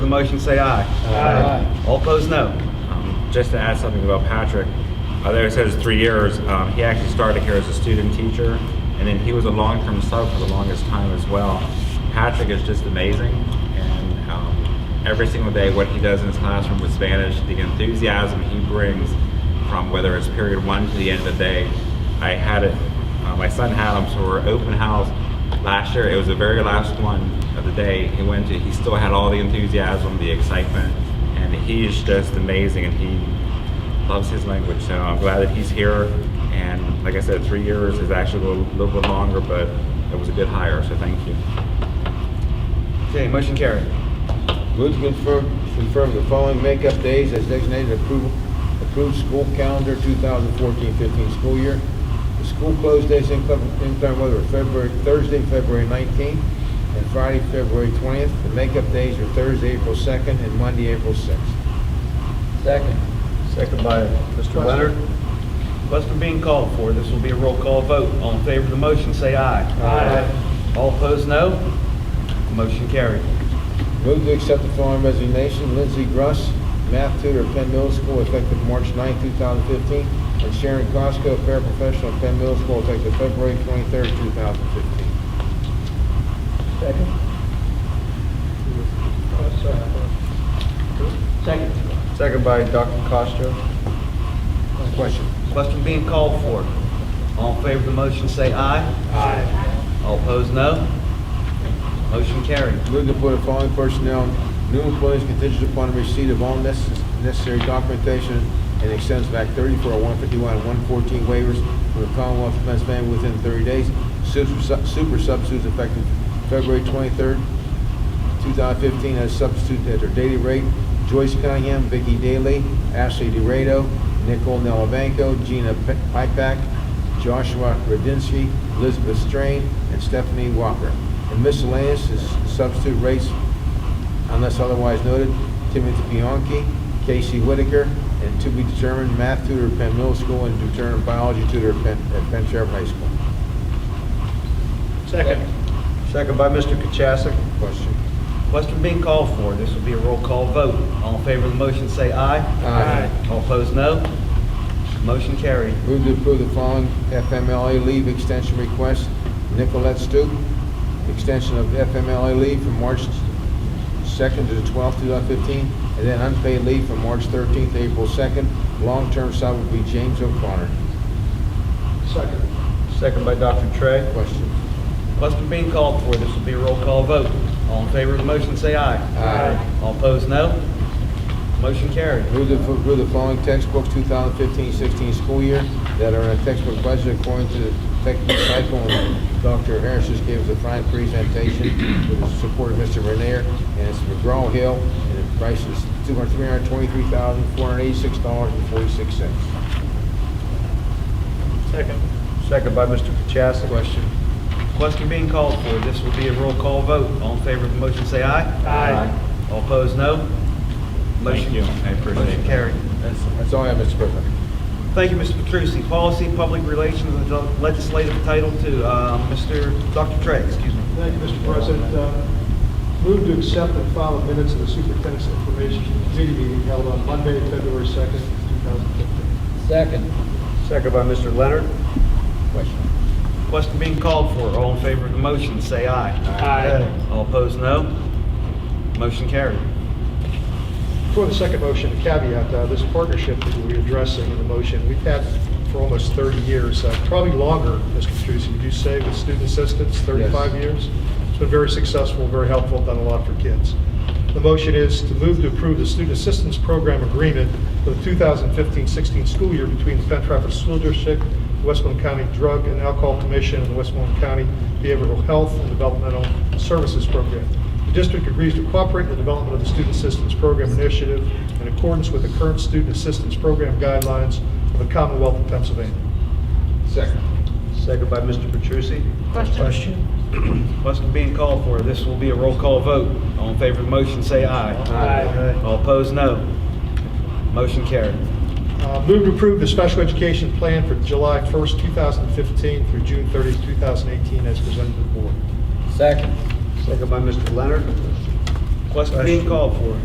motion, say aye. Aye. All opposed, no. Um, Just to add something about Patrick, uh, there it says three years. Um, he actually started here as a student teacher, and then he was a long-term sub for the longest time as well. Patrick is just amazing, and um, every single day, what he does in his classroom with Spanish, the enthusiasm he brings from whether it's period one to the end of the day. I had it. Uh, my son had him, so we're open house last year. It was the very last one of the day he went to. He still had all the enthusiasm, the excitement and he is just amazing and he loves his language so i'm glad that he's here and like i said three years is actually a little, little bit longer but it was a good hire so thank you Okay, motion carried. Move to confirm, confirm the following makeup days as designated approval, approved school calendar 2014-15 school year. The school closed days in inclement inclement weather are February, Thursday, February 19th, and Friday, February 20th. The makeup days are Thursday, April 2nd, and Monday, April 6th. Second. Second by Mr. Leonard. Question being called for. This will be a roll call vote. All in favor of the motion, say aye. Aye. All opposed, no. Motion carried. Move to accept the following resignation, Lindsay Gruss, math tutor at Penn Middle School, effective March 9th, 2015, and Sharon Costco, paraprofessional at Penn Middle School, effective February 23rd, 2015. Second. Second. Second by Dr. Costa. Question? Question being called for. All in favor of the motion, say aye. Aye. All opposed, no. Motion carried. Move to appoint the following personnel, new employees contingent upon receipt of all necess- necessary documentation and extends back 34, 151, and 114 waivers from the Commonwealth of Pennsylvania within 30 days. Super su- super substitutes effective February 23rd, 2015, as substitute at their daily rate, Joyce Cunningham, Vicky Daly, Ashley DeRado, Nicole Nelabanco, Gina P- Pipack, Joshua Radinsky, Elizabeth Strain, and Stephanie Walker. And miscellaneous is substitute rates unless otherwise noted, Timothy Bianchi, Casey Whitaker, and to be determined math tutor at Penn Middle School and determined biology tutor at Penn, at Penn Sheriff High School. Second. Second by Mr. Kachasik. Question? Question being called for. This will be a roll call vote. All in favor of the motion, say aye. All opposed, no. Motion carried. Move to approve the following FMLA leave extension request. Nicolette Stoop, extension of FMLA leave from March 2nd to the 12th, 2015, and then unpaid leave from March 13th to April 2nd. Long-term sub would be James O'Connor. Second. Second by Dr. Trey. Question? Question being called for. This will be a roll call vote. All in favor of the motion, say aye. Aye. All opposed, no. Motion carried. Move to approve the following textbooks 2015-16 school year that are in a textbook budget according to the textbook cycle. And Dr. Harris just gave us a fine presentation with the support of Mr. Renier, and it's McGraw-Hill, and the price is $323,486.46. Second. Second by Mr. Kachasik. Question? Question being called for. This will be a roll call vote. All in favor of the motion, say aye. Aye. All opposed, no. Motion Thank you. I appreciate Motion that. carried. That's all I have, Mr. President. Thank you, Mr. Petrusi. Policy, Public Relations, and Legislative Title Two. Uh, Mr. Dr. Trey, excuse me. Thank you, Mr. President. Uh, Move to accept and file the minutes of the Superintendent's Information Committee meeting held on Monday, February 2nd, 2015. Second. Second by Mr. Leonard. Question? Question being called for. All in favor of the motion, say aye. Aye. All opposed, no. Motion carried. For the second motion, a caveat, uh, this partnership that we're addressing in the motion, we've had for almost 30 years, uh, probably longer, Mr. Petrusi, would you say, with student assistance, 35 Yes. years? It's been very successful, very helpful, done a lot for kids. The motion is to move to approve the Student Assistance Program Agreement for the 2015-16 school year between the Penn Trafford School District, Westmoreland County Drug and Alcohol Commission, and the Westmoreland County Behavioral Health and Developmental Services Program. The district agrees to cooperate in the development of the Student Assistance Program Initiative in accordance with the current Student Assistance Program guidelines of the Commonwealth of Pennsylvania. Second. Second by Mr. Petrusi. Question. Question being called for. This will be a roll call vote. All in favor of the motion, say aye. Aye. All opposed, no. Motion carried. Uh, Move to approve the special education plan for July 1st, 2015 through June 30th, 2018, as presented to the board. Second. Second by Mr. Leonard. Question being called for.